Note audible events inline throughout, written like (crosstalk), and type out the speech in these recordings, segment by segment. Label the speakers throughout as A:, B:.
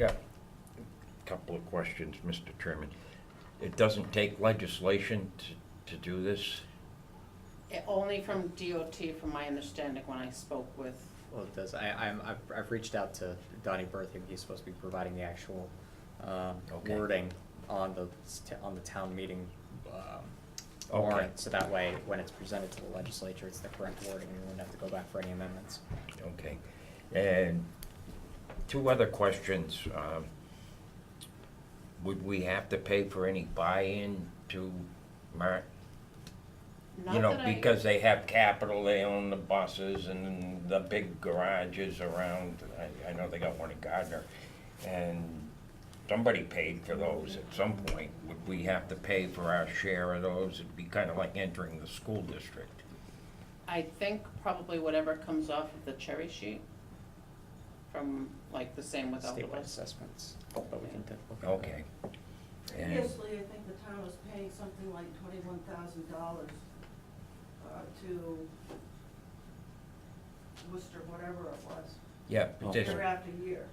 A: Got a couple of questions, Mr. Chairman. It doesn't take legislation to, to do this?
B: Eh, Only from DOT, from my understanding, when I spoke with,
C: Well, it does. I, I'm, I've, I've reached out to Donnie Bertham. He's supposed to be providing the actual, um,
A: Okay.
C: wording on the, s- t- on the town meeting, um,
A: Okay.
C: warrant. So that way, when it's presented to the legislature, it's the correct wording. We wouldn't have to go back for any amendments.
A: Okay. And two other questions. um, Would we have to pay for any buy-in to Mar,
B: not
A: you know,
B: that I-
A: because they have capital, they own the buses and the big garages around, I, I know they got one in Gardner. And somebody paid for those at some point. Would we have to pay for our share of those? It'd be kind of like entering the school district.
B: I think probably whatever comes off of the cherry sheet from, like, the same with
C: Statewide
B: Elderwood.
C: assessments, but we can, do- we'll go
A: Okay. And-
D: Previously, I think the town was paying something like twenty-one thousand dollars uh, to Worcester, whatever it was,
A: Yeah, but this,
D: year after year,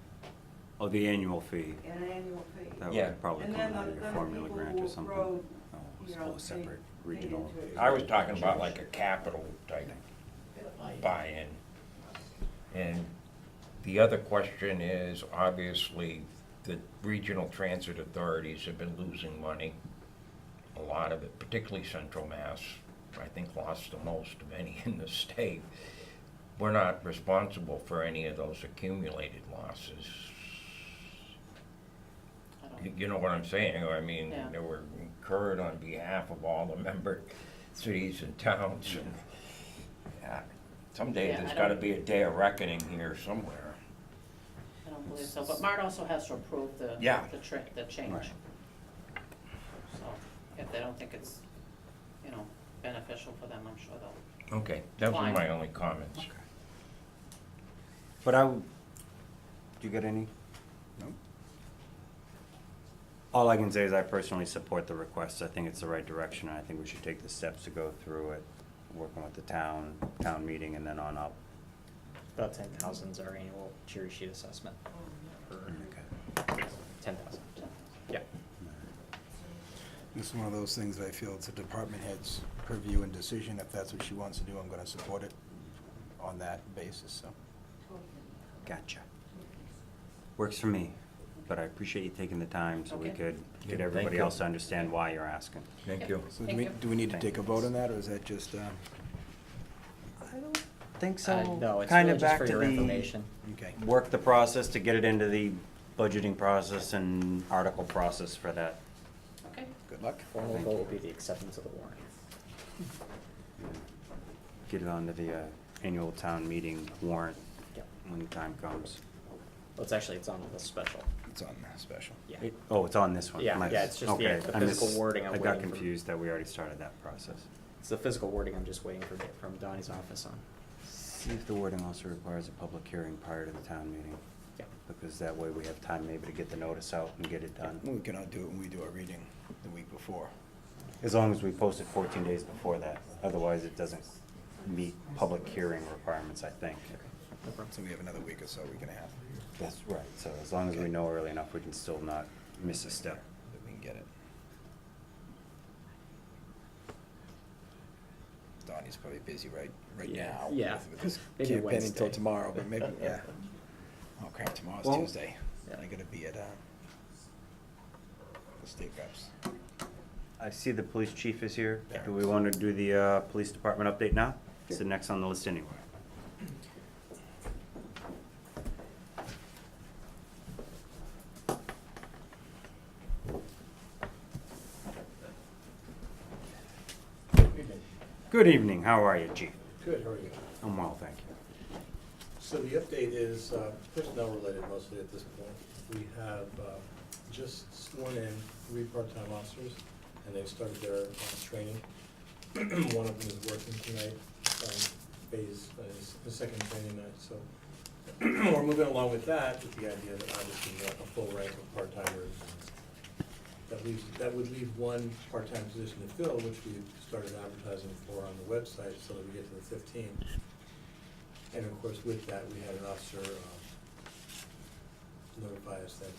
E: Oh, the annual fee,
D: an annual fee.
E: that
A: Yeah.
E: would probably
D: And
E: come
D: then
E: out
D: the-
E: of your
D: then the
E: formula
D: people
E: grant
D: who
E: or something.
D: rode,
E: Oh,
D: you
E: it's
D: know,
E: all
D: they-
E: separate
D: they paid
E: regional.
D: into it.
A: I was talking about like a capital type buy-in. And the other question is, obviously, the regional transit authorities have been losing money. A lot of it, particularly Central Mass, I think lost the most of any (laughs) in the state. We're not responsible for any of those accumulated losses.
B: I
A: You-
B: don't-
A: You know what I'm saying? I mean,
B: Yeah.
A: they were incurred on behalf of all the member cities and towns and yeah, someday
B: Yeah,
A: there's
B: I
A: gotta
B: don't-
A: be a day of reckoning here somewhere.
B: I don't believe so, but Mart also has to approve the,
A: Yeah.
B: the tri, the change.
E: Right.
B: So, if they don't think it's, you know, beneficial for them, I'm sure they'll,
A: Okay, those were
B: Fine.
A: my only comments.
E: Okay. But I, would- do you get any? No. All I can say is I personally support the request. I think it's the right direction, and I think we should take the steps to go through it, working with the town, town meeting, and then on up.
C: About ten thousand's our annual cherry sheet assessment.
D: Oh,
C: Ten thousand, yeah.
F: This is one of those things that I feel it's a department head's purview and decision. If that's what she wants to do, I'm gonna support it on that basis, so.
E: Gotcha. Works for me, but I appreciate you taking the time so we
B: Okay.
E: could
A: Yeah,
E: get
A: thank
E: everybody
A: you.
E: else to understand why you're asking.
A: Thank you.
F: So do
B: Thank
F: we,
B: you.
F: do we need to
E: Thank
F: take a
E: you.
F: vote on that, or is that just, um,
E: I don't think
C: Uh,
E: so.
C: no, it's
E: Kind
C: really
E: of
C: just
E: back
C: for
E: to
C: your
E: the,
C: information.
F: okay?
E: work the process to get it into the budgeting process and article process for that.
B: okay?
F: Good luck.
C: Formal vote will be the acceptance of the warrant.
E: Get it onto the uh, annual town meeting warrant
C: Yep.
E: when the time comes.
C: Well, it's actually, it's on the special,
F: It's on the special.
C: yeah.
E: It- Oh, it's on this one.
C: Yeah,
E: My-
C: yeah, it's just the-
E: okay,
C: the
E: I
C: physical
E: missed-
C: wording I'm
E: I got
C: waiting for.
E: confused that we already started that process.
C: It's the physical wording I'm just waiting for from Donnie's office on.
E: See if the wording also requires a public hearing prior to the town meeting,
C: Yeah.
E: because that way we have time maybe to get the notice out and get it done.
F: We cannot do it when we do our reading the week before.
E: As long as we post it fourteen days before that, otherwise it doesn't meet public hearing requirements, I think.
C: No problem.
F: So we have another week or so, week and a half,
E: That's right, so as long as we know early enough, we can still not miss a step.
F: that we can get it. Donnie's probably busy right, right
C: Yeah,
F: now.
C: yeah.
F: with- with his
C: Maybe
F: campaign
C: Wednesday.
F: Until tomorrow, but maybe,
C: (laughs)
F: yeah. Oh crap, tomorrow's
E: Well-
F: Tuesday.
C: Yeah.
F: I gotta be at, uh, the state reps.
E: I see the police chief is here.
F: Yeah.
E: Do we want to do the uh, police department update now? It's the next on the list anyway. Good evening, how are you, chief?
G: Good, how are you?
E: I'm well, thank you.
G: So the update is uh, personnel related mostly at this point. We have uh, just sworn in three part-time officers, and they've started their uh, training. (clears throat) One of them is working tonight, um, phase, uh, his- his second training night, so (clears throat) we're moving along with that, with the idea that obviously we want a full rank of part-timers. That leaves, that would leave one part-time position to fill, which we started advertising for on the website, so that we get to the fifteen. And of course, with that, we had an officer um, notify us that